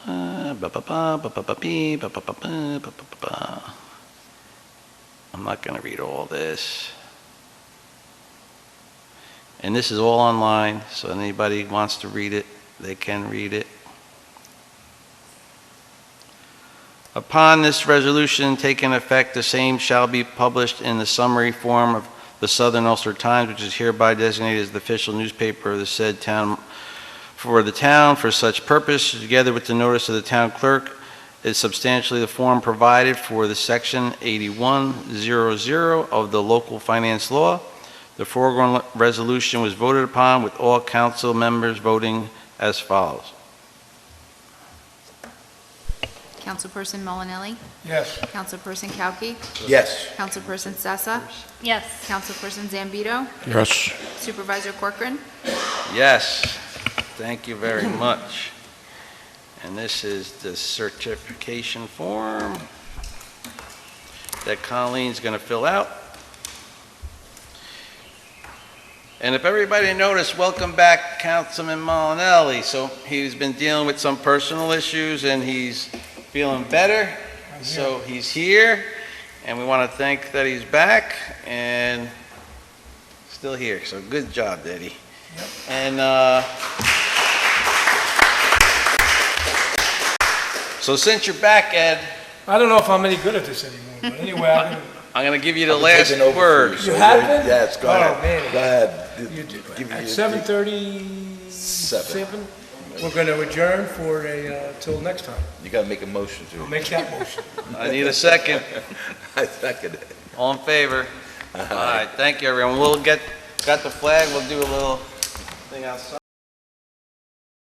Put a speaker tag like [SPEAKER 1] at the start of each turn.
[SPEAKER 1] Uh, ba-ba-ba, ba-ba-ba-bee, ba-ba-ba-ba, ba-ba-ba-ba. I'm not going to read all this. And this is all online, so anybody wants to read it, they can read it. Upon this resolution taking effect, the same shall be published in the summary form of the Southern Ulster Times, which is hereby designated as the official newspaper of the said town, for the town for such purpose, together with the notice of the town clerk, is substantially the form provided for the section 8100 of the local finance law. The foregoing le- resolution was voted upon with all council members voting as follows.
[SPEAKER 2] Councilperson Molinelli,
[SPEAKER 3] Yes.
[SPEAKER 2] Councilperson Kauki,
[SPEAKER 3] Yes.
[SPEAKER 2] Councilperson Sessa,
[SPEAKER 4] Yes.
[SPEAKER 2] Councilperson Zambito,
[SPEAKER 3] Yes.
[SPEAKER 2] Supervisor Corcoran.
[SPEAKER 1] Yes, thank you very much. And this is the certification form that Colleen's going to fill out. And if everybody noticed, welcome back Councilman Malinelli. So he's been dealing with some personal issues and he's feeling better. So he's here and we want to thank that he's back and still here. So good job, Daddy. And uh, so since you're back, Ed,
[SPEAKER 5] I don't know if I'm any good at this anymore, but anyway, I'm gonna-
[SPEAKER 1] I'm going to give you the
[SPEAKER 3] I'm
[SPEAKER 1] last
[SPEAKER 3] taking over for
[SPEAKER 1] word.
[SPEAKER 3] you.
[SPEAKER 5] you have it?
[SPEAKER 3] Yes, go ahead.
[SPEAKER 5] Oh, man.
[SPEAKER 3] Go ahead. D-
[SPEAKER 5] You-
[SPEAKER 3] give me your-
[SPEAKER 5] At seven thirty-seven, we're gonna adjourn for a, uh, till next time.
[SPEAKER 3] You gotta make a motion
[SPEAKER 5] I'll
[SPEAKER 3] to.
[SPEAKER 5] Make that motion.
[SPEAKER 1] I need a second.
[SPEAKER 3] I second it.
[SPEAKER 1] All in favor? All right, thank you, everyone. We'll get, got the flag, we'll do a little thing outside.